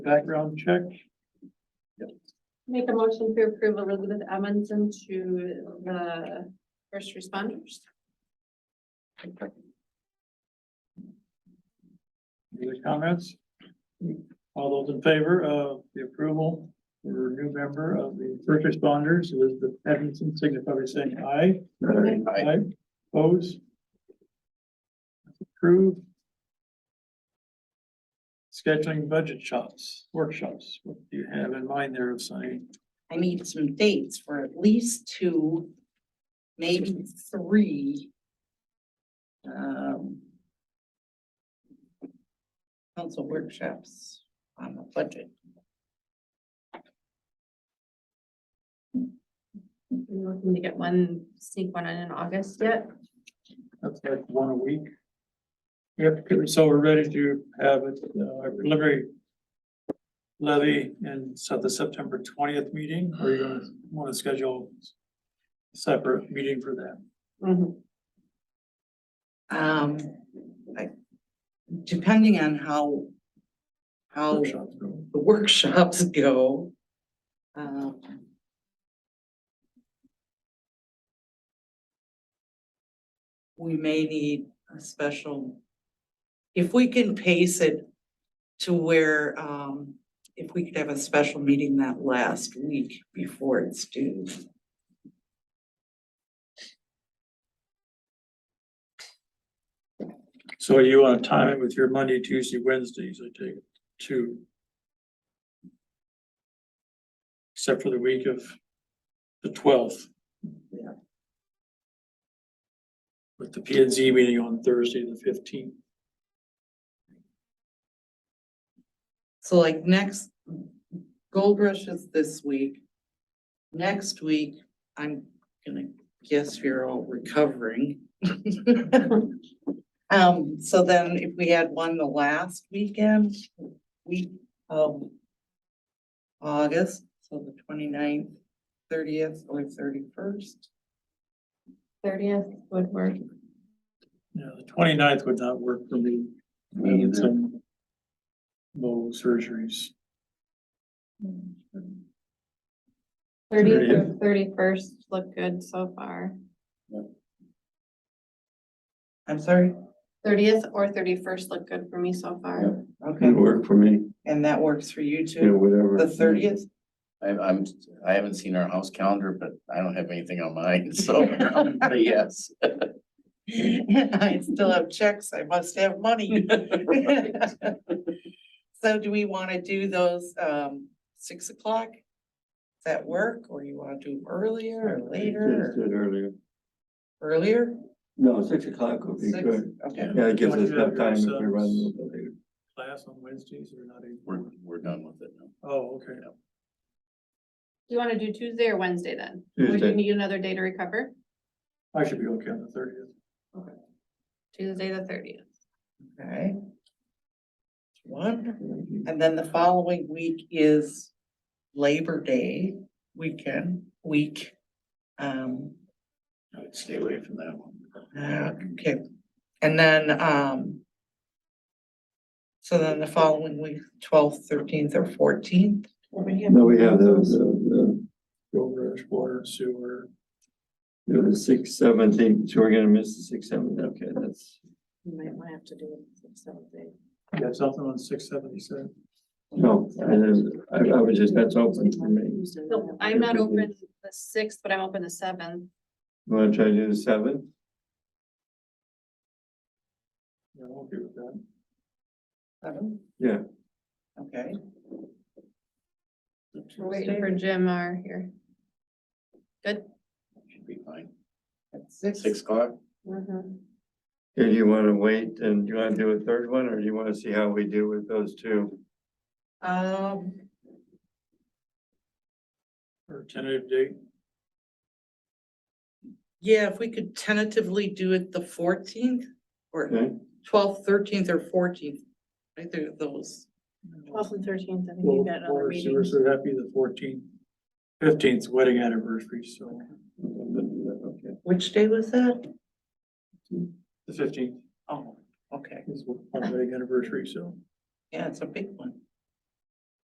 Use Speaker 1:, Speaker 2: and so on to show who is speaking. Speaker 1: background check.
Speaker 2: Make a motion to approve Elizabeth Amundson to the first responders.
Speaker 1: Any other comments? All those in favor of the approval for new member of the first responders, Elizabeth Edmondson, signify by saying aye. Aye. Oppose? Approve. Scheduling budget shops, workshops, what do you have in mind there, Sonny?
Speaker 3: I need some dates for at least two, maybe three. Um. Council workshops on the budget.
Speaker 2: We're looking to get one, sneak one in in August yet.
Speaker 1: That's like one a week. Yep, so we're ready to have it, uh, preliminary levy and set the September twentieth meeting, or you gonna wanna schedule a separate meeting for that?
Speaker 2: Mm-hmm.
Speaker 3: Um, I, depending on how. How
Speaker 1: workshop?
Speaker 3: the workshops go. Um, We may need a special, if we can pace it to where, um, if we could have a special meeting that last week before it's due.
Speaker 1: So you wanna time it with your Monday, Tuesday, Wednesdays, I take it, two. Except for the week of the twelfth.
Speaker 3: Yeah.
Speaker 1: With the P and Z meeting on Thursday, the fifteenth.
Speaker 3: So like next, Gold Rush is this week. Next week, I'm gonna guess you're all recovering. Um, so then if we had one the last weekend, week of August, so the 29th, thirtieth, or thirty-first.
Speaker 2: Thirtieth would work.
Speaker 1: Yeah, the 29th would not work for me.
Speaker 4: Me
Speaker 1: I had
Speaker 4: either.
Speaker 1: some Low surgeries.
Speaker 2: Thirtieth or thirty-first look good so far.
Speaker 3: I'm sorry,
Speaker 2: Thirtieth or thirty-first look good for me so far.
Speaker 3: okay,
Speaker 4: It worked for me,
Speaker 3: and that works for you
Speaker 4: you know,
Speaker 3: too,
Speaker 4: whatever.
Speaker 3: the thirtieth?
Speaker 5: I, I'm, I haven't seen our house calendar, but I don't have anything on mine, so, but yes.
Speaker 3: I still have checks, I must have money. So do we wanna do those, um, six o'clock? Does that work, or you wanna do 'em earlier or
Speaker 4: Just
Speaker 3: later,
Speaker 4: did earlier.
Speaker 3: or earlier?
Speaker 4: No, six o'clock would be
Speaker 3: Six,
Speaker 4: good.
Speaker 3: okay.
Speaker 4: Yeah, it gives
Speaker 1: Don't
Speaker 4: us
Speaker 1: you have
Speaker 4: enough time if we
Speaker 1: yourselves
Speaker 4: run a little bit later.
Speaker 1: Class on Wednesdays or not even?
Speaker 5: We're, we're done with it now.
Speaker 1: Oh, okay.
Speaker 2: Do you want to do Tuesday or Wednesday then? Or do you
Speaker 4: Tuesday.
Speaker 2: need another day to recover?
Speaker 1: I should be okay on the thirtieth.
Speaker 2: Tuesday the thirtieth.
Speaker 3: Okay. One, and then the following week is Labor Day weekend, week. Um,
Speaker 1: I'd stay away from that one.
Speaker 3: okay, and then, um. So then the following week, twelfth, thirteenth, or fourteenth,
Speaker 4: No, we have the, the,
Speaker 1: Road rush, water, sewer.
Speaker 4: the, the six, seven thing, so we're gonna miss the six, seven, okay, that's.
Speaker 2: You might want to have to do it seven days.
Speaker 1: You have something on six seventy-seven?
Speaker 4: No, I, didn't- I, I was just, that's open for me.
Speaker 2: No, I'm not open the sixth, but I'm open the seventh.
Speaker 4: Wanna try to do the seven?
Speaker 1: Yeah, I'm okay with that.
Speaker 3: seven?
Speaker 4: Yeah.
Speaker 3: Okay.
Speaker 2: We're waiting for Jim R here. Good.
Speaker 5: Should be fine.
Speaker 3: At six,
Speaker 5: Six o'clock?
Speaker 2: Mm-hmm.
Speaker 4: Or do you wanna wait and do you wanna do a third one, or do you wanna see how we do with those two?
Speaker 3: um,
Speaker 1: Or tentative date,
Speaker 3: yeah, if we could tentatively do it the fourteenth or
Speaker 4: Okay,
Speaker 3: twelfth, thirteenth, or fourteenth. Either of those.
Speaker 2: Twelfth and thirteenth, I think you
Speaker 1: Well,
Speaker 2: got another
Speaker 1: water, sewer,
Speaker 2: meeting.
Speaker 1: so that'd be the fourteenth. Fifteenth wedding anniversary, so
Speaker 4: okay,
Speaker 3: Which day was that?
Speaker 1: the fifteenth
Speaker 3: Oh, okay,
Speaker 1: is our wedding anniversary, so.
Speaker 3: yeah, it's a big one.